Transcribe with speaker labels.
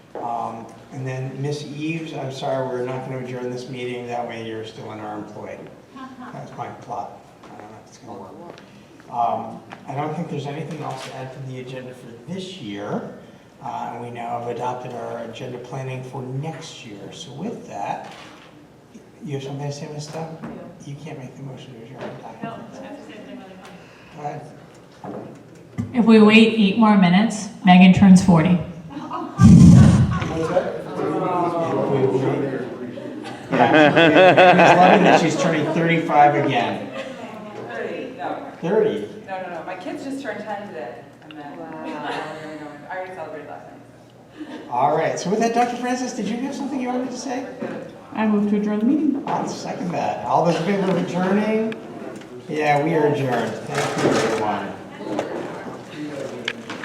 Speaker 1: Um, And then Miss Eves, I'm sorry, we're not going to adjourn this meeting, that way you're still in our employ. That's my plot. I don't know if it's going to work. Um, I don't think there's anything else to add to the agenda for this year. Uh, We now have adopted our agenda planning for next year. So with that, you have something to say, Ms. Stubbs? You can't make the motion to adjourn. I
Speaker 2: No,
Speaker 1: don't
Speaker 2: I
Speaker 1: think
Speaker 2: have to say something really funny.
Speaker 1: so. Go ahead.
Speaker 3: If we wait eight more minutes, Megan turns 40.
Speaker 1: Yeah, she's loving that she's turning 35 again.
Speaker 4: No,
Speaker 1: 30?
Speaker 4: no, no, no. My kids just turned 10 today. I'm not. Wow. I already celebrated last night.
Speaker 1: All right, so with that, Dr. Francis, did you have something you wanted to say?
Speaker 3: I move to adjourn the meeting.
Speaker 1: I'll second that. All those in favor of adjourning? Yeah, we are adjourned. Thank you, everyone.